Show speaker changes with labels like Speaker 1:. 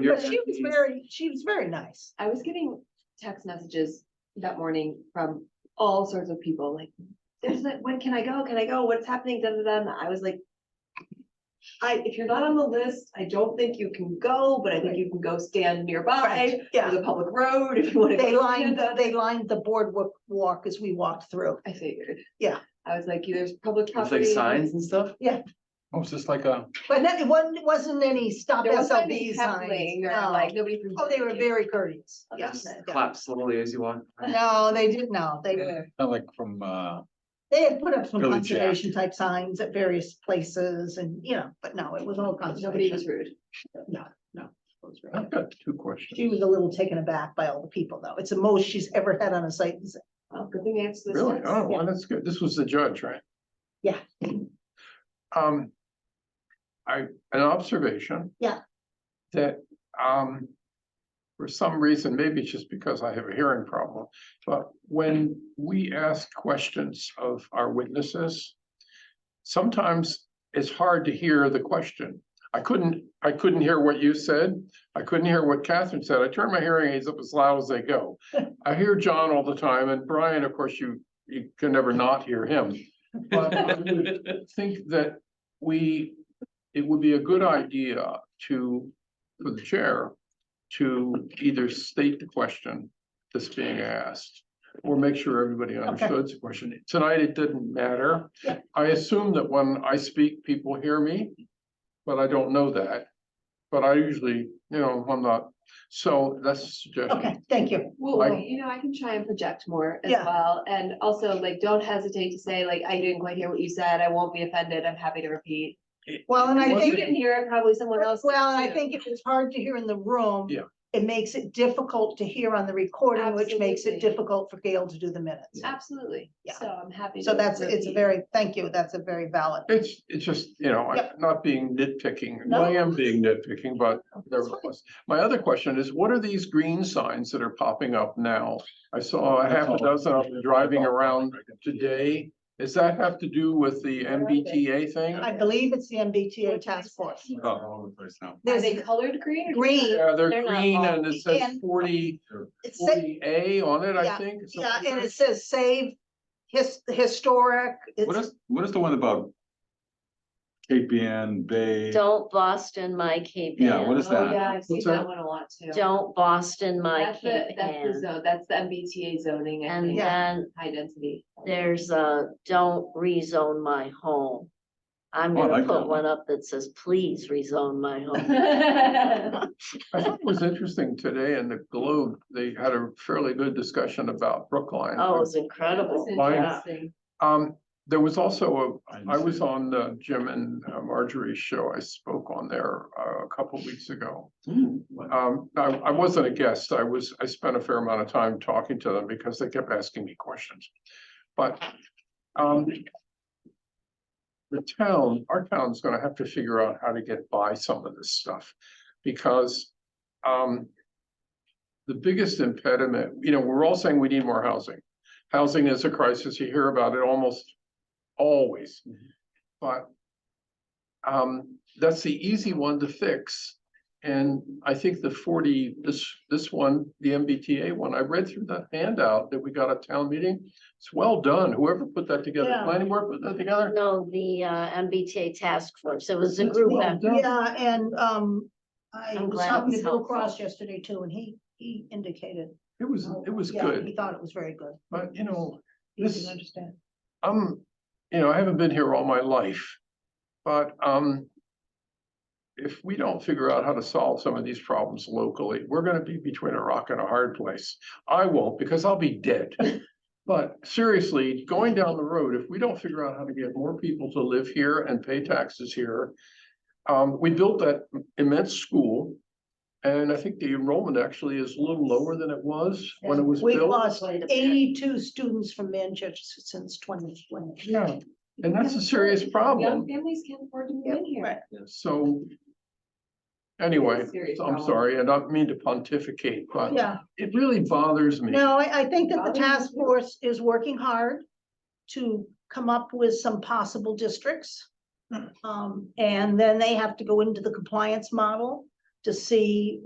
Speaker 1: you're-
Speaker 2: But she was very, she was very nice.
Speaker 3: I was getting text messages that morning from all sorts of people, like, there's that, when can I go? Can I go? What's happening? Da, da, da. And I was like, I, if you're not on the list, I don't think you can go, but I think you can go stand nearby or
Speaker 2: Yeah,
Speaker 3: the public road if you want to.
Speaker 2: they lined, they lined the boardwalk walk as we walked through.
Speaker 3: I figured.
Speaker 2: Yeah.
Speaker 3: I was like, there's public
Speaker 1: It's like
Speaker 3: property.
Speaker 1: signs and stuff?
Speaker 2: Yeah.
Speaker 1: Oh, it's just like a,
Speaker 2: But that, it wasn't, wasn't any stop
Speaker 3: There wasn't any
Speaker 2: SLB
Speaker 3: heckling
Speaker 2: signs.
Speaker 3: or,
Speaker 2: no.
Speaker 3: like, nobody. from-
Speaker 2: Oh, they were very courteous.
Speaker 3: Okay.
Speaker 2: Yes. yeah. Uh,
Speaker 1: clap slowly as you walk.
Speaker 2: No, they didn't, no, they,
Speaker 4: Not like from, uh,
Speaker 2: they had put up some
Speaker 4: Really jacked.
Speaker 2: conservation type signs at various places and, you know, but no, it was all
Speaker 3: Nobody was
Speaker 2: conservation.
Speaker 3: rude.
Speaker 2: No, no. it was really-
Speaker 4: I've got two questions.
Speaker 2: She was a little taken aback by all the people, though. It's the most she's ever had on a site. visit.
Speaker 3: Oh, good thing I answered this.
Speaker 4: Really?
Speaker 3: text.
Speaker 4: Oh, well, that's good. This was the judge, right?
Speaker 2: Yeah.
Speaker 4: Um, I, an observation.
Speaker 2: Yeah.
Speaker 4: That, um, for some reason, maybe it's just because I have a hearing problem, but when we ask questions of our witnesses, sometimes it's hard to hear the question. I couldn't, I couldn't hear what you said. I couldn't hear what Catherine said. I turned my hearing aids up as loud as they go. I hear John all the time and Brian, of course, you, you can never not hear him. But I would think that we, it would be a good idea to, for the chair, to either state the question that's being asked or make sure everybody understood the question. Tonight, it didn't matter.
Speaker 2: Yeah.
Speaker 4: I assume that when I speak, people hear me, but I don't know that. But I usually, you know, I'm not, so that's a suggestion.
Speaker 2: Okay, thank you.
Speaker 3: Well,
Speaker 4: Like-
Speaker 3: you know, I can try and project more as
Speaker 2: Yeah.
Speaker 3: well, and also like, don't hesitate to say like, I didn't quite hear what you said, I won't be offended, I'm happy to repeat.
Speaker 2: Well, and I
Speaker 3: If you
Speaker 2: think,
Speaker 3: didn't hear it, probably someone else.
Speaker 2: well, and I
Speaker 3: too.
Speaker 2: think if it's hard to hear in the room.
Speaker 4: Yeah.
Speaker 2: It makes it difficult to hear on the recording, which makes it
Speaker 3: Absolutely.
Speaker 2: difficult for Gail to do the minutes.
Speaker 3: Absolutely,
Speaker 2: Yeah.
Speaker 3: so I'm happy.
Speaker 2: So
Speaker 3: to
Speaker 2: that's, it's a
Speaker 3: repeat.
Speaker 2: very, thank you, that's a very valid.
Speaker 4: It's, it's just, you know, I'm not being nitpicking,
Speaker 2: No.
Speaker 4: I am being nitpicking, but
Speaker 2: That's fine.
Speaker 4: nevertheless. My other question is, what are these green signs that are popping up now? I saw Oh, a
Speaker 1: That's
Speaker 4: half a
Speaker 1: all.
Speaker 4: dozen of them driving around today. Does that have to do with the MBTA thing?
Speaker 2: I believe it's the MBTA task force.
Speaker 1: Oh, all over the place now.
Speaker 3: Are
Speaker 2: There's
Speaker 3: they colored green? or-
Speaker 2: green,
Speaker 4: Yeah, they're
Speaker 3: They're not
Speaker 4: green
Speaker 3: all-
Speaker 4: and it says
Speaker 2: and-
Speaker 4: forty,
Speaker 2: it's, sa-
Speaker 4: forty A on it, I
Speaker 2: Yeah,
Speaker 4: think. something
Speaker 2: yeah, and
Speaker 4: like
Speaker 2: it says save his, historic.
Speaker 1: What
Speaker 2: It's,
Speaker 1: is, what is the one about? KPN, Bay,
Speaker 5: Don't Boston my Cape
Speaker 1: Yeah, what
Speaker 5: Ann.
Speaker 1: is
Speaker 3: Oh,
Speaker 1: that?
Speaker 3: yeah, I've seen
Speaker 4: What's
Speaker 3: that
Speaker 4: that?
Speaker 3: one a lot too.
Speaker 5: Don't Boston my
Speaker 3: That's the,
Speaker 5: Cape
Speaker 3: that's the
Speaker 5: Ann.
Speaker 3: zone, that's the MBTA zoning, I
Speaker 5: And
Speaker 3: think,
Speaker 2: Yeah.
Speaker 5: then
Speaker 3: high density.
Speaker 5: there's a don't rezone my home. I'm
Speaker 1: Oh, I
Speaker 5: gonna
Speaker 1: like that
Speaker 5: put one up that says, please rezone my home.
Speaker 4: I thought it was interesting today in the Globe, they had a fairly good discussion about Brookline.
Speaker 5: Oh, it's
Speaker 3: That's
Speaker 5: incredible.
Speaker 4: Mine-
Speaker 5: Yeah.
Speaker 3: interesting.
Speaker 4: Um, there was also a,
Speaker 1: I
Speaker 4: I was on the Jim and uh, Marjorie's show. I spoke on there uh, a couple weeks ago. Um, I, I wasn't a guest. I was, I spent a fair amount of time talking to them because they kept asking me questions. But, um, the town, our town's gonna have to figure out how to get by some of this stuff because, um, the biggest impediment, you know, we're all saying we need more housing. Housing is a crisis. You hear about it almost always. But um, that's the easy one to fix. And I think the forty, this, this one, the MBTA one, I read through the handout that we got at town meeting. It's well done. Whoever put that together,
Speaker 2: Yeah.
Speaker 4: planning board put that together.
Speaker 5: No, the uh, MBTA task force. It was a
Speaker 4: That's
Speaker 5: group.
Speaker 4: well
Speaker 5: effort.
Speaker 4: done.
Speaker 2: yeah, and, um, I
Speaker 5: I'm
Speaker 2: was
Speaker 5: glad it
Speaker 2: talking
Speaker 5: was
Speaker 2: to Bill
Speaker 5: helpful.
Speaker 2: Cross yesterday too, and he, he indicated.
Speaker 4: It was,
Speaker 2: oh,
Speaker 4: it was
Speaker 2: yeah, He
Speaker 4: good,
Speaker 2: thought it was very good.
Speaker 4: but you know,
Speaker 2: He
Speaker 4: This-
Speaker 2: didn't understand.
Speaker 4: I'm, Um, you know, I haven't been here all my life, but, um. If we don't figure out how to solve some of these problems locally, we're gonna be between a rock and a hard place. I won't, because I'll be dead. But seriously, going down the road, if we don't figure out how to get more people to live here and pay taxes here. Um, we built that immense school. And I think the enrollment actually is a little lower than it was when it was
Speaker 2: We've
Speaker 4: built.
Speaker 2: lost
Speaker 5: Quite a bit.
Speaker 2: eighty-two students from Manchester since twenty twenty.
Speaker 4: Yeah, and that's a serious
Speaker 3: Young
Speaker 4: problem.
Speaker 3: families can't afford to move in here.
Speaker 2: right.
Speaker 4: So. Anyway,
Speaker 3: serious
Speaker 4: so I'm
Speaker 3: problem.
Speaker 4: sorry, I don't mean to pontificate, but
Speaker 2: Yeah,
Speaker 4: it really bothers me.
Speaker 2: no, I, I think that the
Speaker 3: Probably
Speaker 2: task
Speaker 3: too.
Speaker 2: force is working hard to come up with some possible districts.
Speaker 3: Hmm.
Speaker 2: Um, and then they have to go into the compliance model to see